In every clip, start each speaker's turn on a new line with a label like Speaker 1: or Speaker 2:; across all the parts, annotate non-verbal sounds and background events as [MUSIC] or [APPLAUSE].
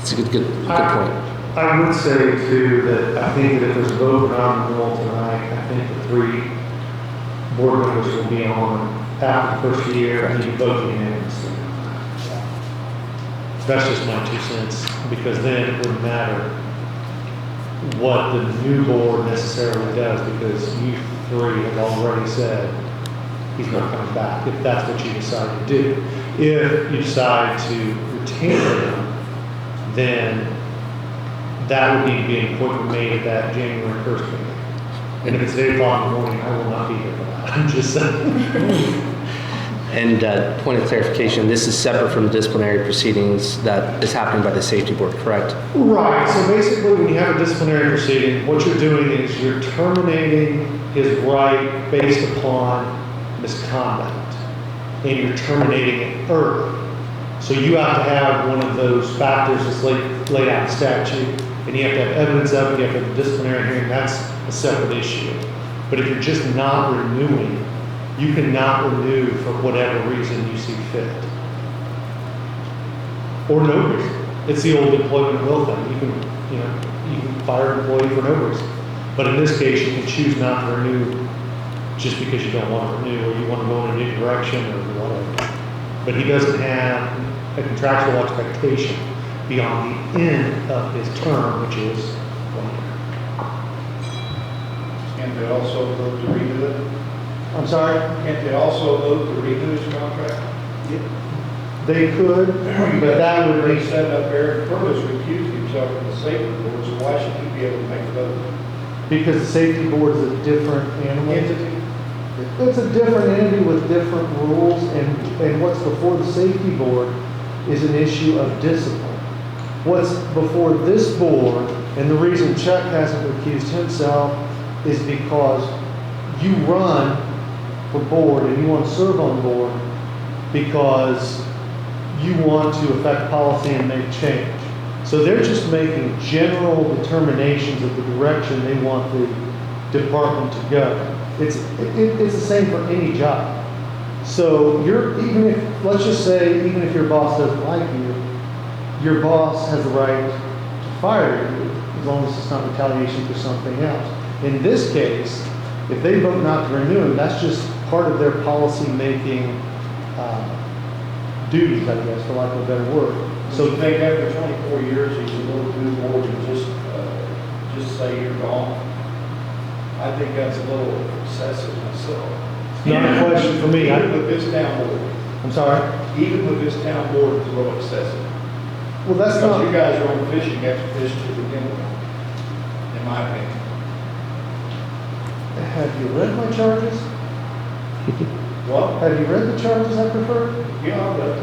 Speaker 1: It's a good, good, good point.
Speaker 2: I I would say too, that I think that if there's a vote on the bill tonight, I think the three board members will be on after the first year, and you vote unanimously. That's just my two cents, because then it wouldn't matter what the new board necessarily does, because you three have already said he's not coming back, if that's what you decide to do. If you decide to retain him, then that would need to be an appointment made at that January first meeting. And if it's eight o'clock in the morning, I will not be here for that. [LAUGHS] I'm just saying.
Speaker 1: And uh, point of clarification, this is separate from the disciplinary proceedings that is happening by the safety board, correct?
Speaker 2: Right, so basically, when you have a disciplinary proceeding, what you're doing is you're terminating his right based upon misconduct. And you're terminating it early. So you have to have one of those factors that's laid, laid out in statute, and you have to have evidence of it, you have to have a disciplinary hearing, that's a separate issue. But if you're just not renewing, you cannot renew for whatever reason you see fit. Or no reason. It's the old employment will thing. You can, you know, you can fire an employee for no reason. But in this case, you can choose not to renew just because you don't want to renew, or you want to go in a new direction, or whatever. But he doesn't have a contractual expectation beyond the end of his term, which is one year.
Speaker 3: Can't they also vote to renew it?
Speaker 2: I'm sorry?
Speaker 3: Can't they also vote to renew his contract?
Speaker 2: They could, but that would
Speaker 3: They
Speaker 2: [CLEARS THROAT] be,
Speaker 3: set up Eric Purvis recused himself from the safety board, so why should he be able to make a vote?
Speaker 2: because the safety board is a different animal. It's a different entity with different rules, and, and what's before the safety board is an issue of discipline. What's before this board, and the reason Chuck hasn't recused himself, is because you run for board and you want to serve on board because you want to affect policy and make change. So they're just making general determinations of the direction they want the department to go. It's, it, it's the same for any job. So you're, even if, let's just say, even if your boss doesn't like you, your boss has the right to fire you as long as it's not retaliation for something else. In this case, if they vote not to renew him, that's just part of their policy-making, uh, duties, I guess, for lack of a better word.
Speaker 3: So
Speaker 2: So
Speaker 3: you think after twenty-four years, he should go to the board and just, uh, just say you're gone? I think that's a little excessive myself.
Speaker 2: Not a question for me.
Speaker 3: Even
Speaker 2: I-
Speaker 3: with this town board,
Speaker 2: I'm sorry.
Speaker 3: even with this town board, it's a little excessive.
Speaker 2: Well, that's
Speaker 3: Because you
Speaker 2: not,
Speaker 3: guys are on fishing expedition to begin with, in my opinion.
Speaker 2: have you read my charges?
Speaker 3: Well,
Speaker 2: Have you read the charges I prefer?
Speaker 3: yeah, but,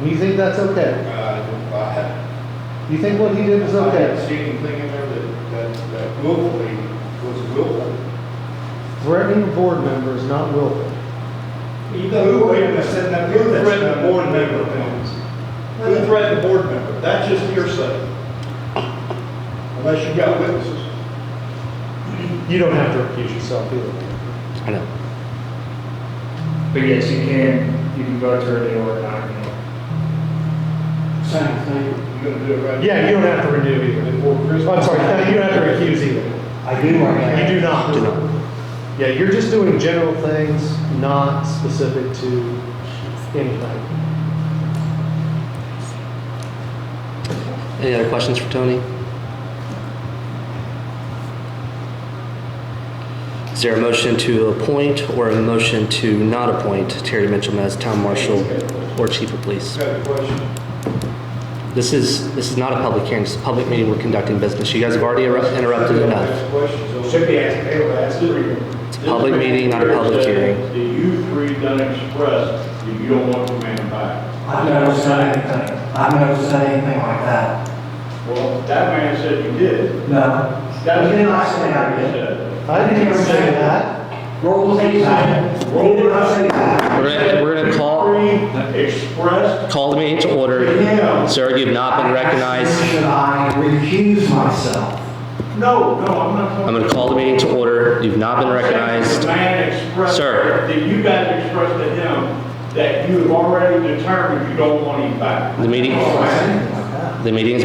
Speaker 2: And you think that's okay?
Speaker 3: uh, I have
Speaker 2: You think what he did was
Speaker 3: I
Speaker 2: okay?
Speaker 3: haven't seen anything in there that, that, that willfully was willful.
Speaker 2: Threatening a board member is not willful.
Speaker 3: Who, wait a minute, said that, who threatened the board member? Who threatened the board member? That's just hearsay. Unless you got witnesses.
Speaker 2: You don't have to recuse yourself either.
Speaker 1: I know.
Speaker 4: But yes, you can, you can vote to renew or not renew.
Speaker 3: Same thing. You're gonna do it right?
Speaker 2: Yeah, you don't have to renew either.
Speaker 3: Before Christmas.
Speaker 2: I'm sorry, you don't have to recuse either.
Speaker 4: I do,
Speaker 2: You do not. Yeah, you're just doing general things, not specific to anything.
Speaker 1: Any other questions for Tony? Is there a motion to appoint or a motion to not appoint Terry Mitchell as town marshal or chief of police?
Speaker 3: Got a question?
Speaker 1: This is, this is not a public hearing, it's a public meeting, we're conducting business. You guys have already eru- interrupted enough.
Speaker 3: Ask questions.
Speaker 4: Should be asked, they were asked to renew.
Speaker 1: It's a public meeting, not a public hearing.
Speaker 5: Do you three done expressed that you don't want the man back?
Speaker 6: I've never said anything, I've never said anything like that.
Speaker 5: Well, that man said you did.
Speaker 6: No,
Speaker 5: That's
Speaker 6: You did not say that, did you?
Speaker 2: I didn't even say that.
Speaker 6: rules ain't that, rules do not say that.
Speaker 1: We're gonna, we're gonna call,
Speaker 5: Three expressed.
Speaker 1: call the meeting to order.
Speaker 6: Again,
Speaker 1: Sir, you've not been recognized.
Speaker 6: Should I recuse myself?
Speaker 5: No, no, I'm not.
Speaker 1: I'm gonna call the meeting to order, you've not been
Speaker 5: The
Speaker 1: recognized.
Speaker 5: man expressed.
Speaker 1: Sir.
Speaker 5: That you guys expressed to him that you have already determined you don't want him back.
Speaker 1: The meeting,
Speaker 6: I said anything like that.
Speaker 1: the meeting's